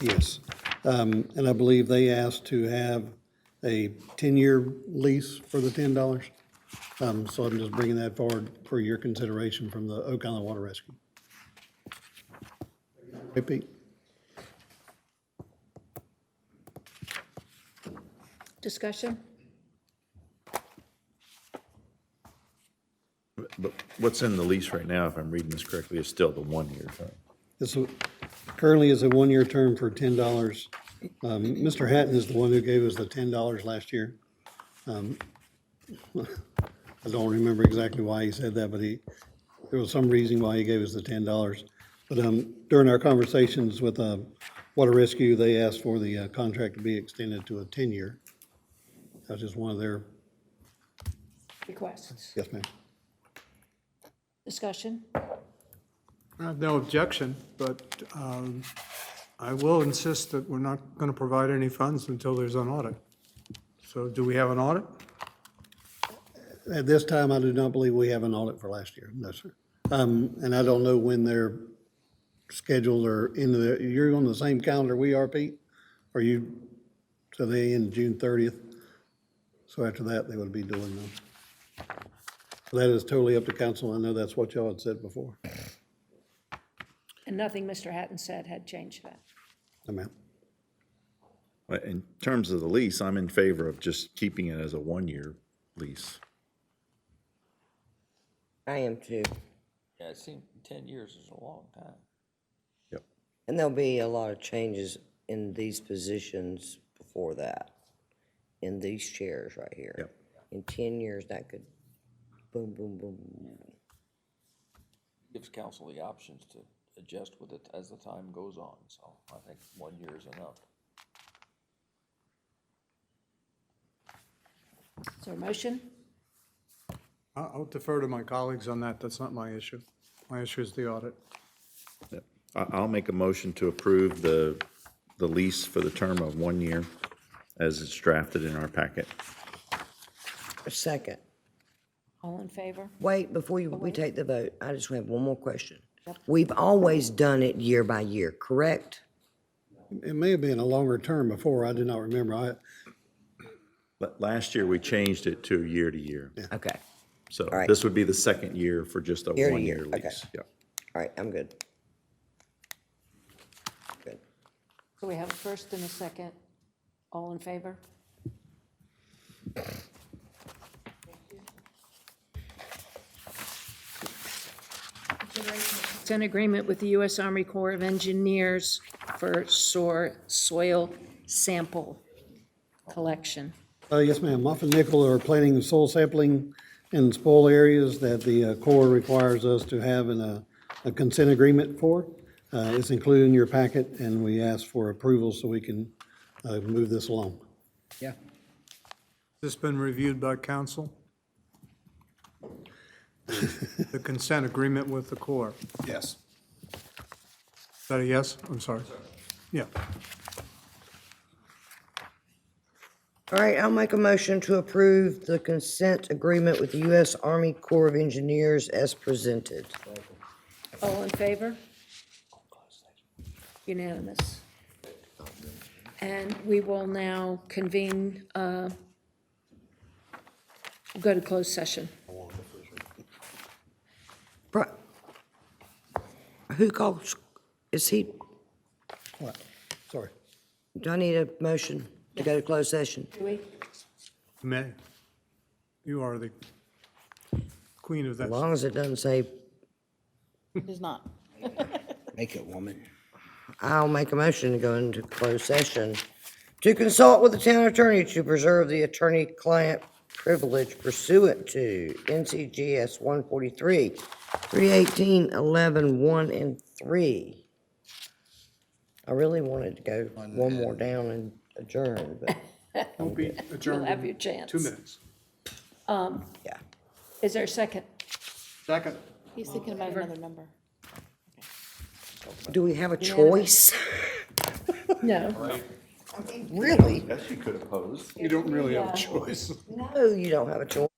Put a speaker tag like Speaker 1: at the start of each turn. Speaker 1: Yes. Um, And I believe they asked to have a 10-year lease for the $10. Um, So I'm just bringing that forward for your consideration from the Oak Island Water Rescue. Hey, Pete?
Speaker 2: Discussion?
Speaker 3: But what's in the lease right now, if I'm reading this correctly, is still the one-year term.
Speaker 1: This w- currently is a one-year term for ten dollars. Um, Mr. Hatton is the one who gave us the ten dollars last year. Um, I don't remember exactly why he said that, but he, there was some reason why he gave us the ten dollars. But, um, during our conversations with, uh, Water Rescue, they asked for the uh, contract to be extended to a ten-year. That's just one of their,
Speaker 2: Requests?
Speaker 1: yes, ma'am.
Speaker 2: Discussion?
Speaker 4: I have no objection, but um, I will insist that we're not going to provide any funds until there's an audit. So do we have an audit?
Speaker 1: At this time, I do not believe we have an audit for last year, no, sir. Um, and I don't know when they're scheduled or in the, you're on the same calendar we are, Pete? Are you, so they end June thirtieth? So after that, they would be doing them. That is totally up to council, I know that's what y'all had said before.
Speaker 2: And nothing Mr. Hatton said had changed that.
Speaker 1: No, ma'am.
Speaker 3: But in terms of the lease, I'm in favor of just keeping it as a one-year lease.
Speaker 5: I am too.
Speaker 6: Yeah, it seems ten years is a long time.
Speaker 3: Yep.
Speaker 5: And there'll be a lot of changes in these positions before that, in these chairs right here.
Speaker 3: Yep.
Speaker 5: In ten years, that could boom, boom, boom.
Speaker 6: Gives council the options to adjust with it as the time goes on, so I think one year is enough.
Speaker 2: Is there a motion?
Speaker 4: I- I'll defer to my colleagues on that. That's not my issue. My issue is the audit.
Speaker 3: Yep. I, I'll make a motion to approve the, the lease for the term of one year as it's drafted in our packet.
Speaker 5: A second.
Speaker 2: All in favor?
Speaker 5: Wait, before you, we take the vote, I just have one more question. We've always done it year by year, correct?
Speaker 1: It may have been a longer term before, I do not remember, I,
Speaker 3: But last year, we changed it to year to year.
Speaker 5: Okay,
Speaker 3: So
Speaker 5: right.
Speaker 3: this would be the second year for just a
Speaker 5: Year to
Speaker 3: one-year
Speaker 5: year, okay.
Speaker 3: lease. Yep.
Speaker 5: all right, I'm good. Good.
Speaker 2: So we have a first and a second. All in favor? It's an agreement with the U.S. Army Corps of Engineers for soar- soil sample collection.
Speaker 1: Uh, yes, ma'am. Muff and Nickel are planning soil sampling in spoil areas that the uh, Corps requires us to have in a, a consent agreement for. Uh, it's included in your packet and we ask for approval so we can, uh, move this along.
Speaker 7: Yeah,
Speaker 4: Has this been reviewed by council? The consent agreement with the Corps? Yes. Is that a yes? I'm sorry. Yeah.
Speaker 5: All right, I'll make a motion to approve the consent agreement with the U.S. Army Corps of Engineers as presented.
Speaker 2: All in favor? Unanimous. And we will now convene, uh, we'll go to closed session.
Speaker 5: Bru- Who calls, is he,
Speaker 1: What? Sorry.
Speaker 5: do I need a motion to go to closed session?
Speaker 2: Do we?
Speaker 4: May. You are the queen of that.
Speaker 5: As long as it doesn't say,
Speaker 8: It's not.
Speaker 7: make it, woman.
Speaker 5: I'll make a motion to go into closed session to consult with the town attorney to preserve the attorney-client privilege pursuant to NCGS 143, 318, 11, 1, and 3. I really wanted to go one more down and adjourn, but,
Speaker 4: We'll be adjourned
Speaker 2: You'll have
Speaker 4: in
Speaker 2: your chance.
Speaker 4: Two minutes.
Speaker 5: yeah.
Speaker 2: Is there a second?
Speaker 4: Second.
Speaker 8: He's thinking about another number.
Speaker 5: Do we have a choice?
Speaker 2: No.
Speaker 5: Really?
Speaker 6: Yes, you could oppose.
Speaker 4: You don't really have a choice.
Speaker 5: No, you don't have a choice.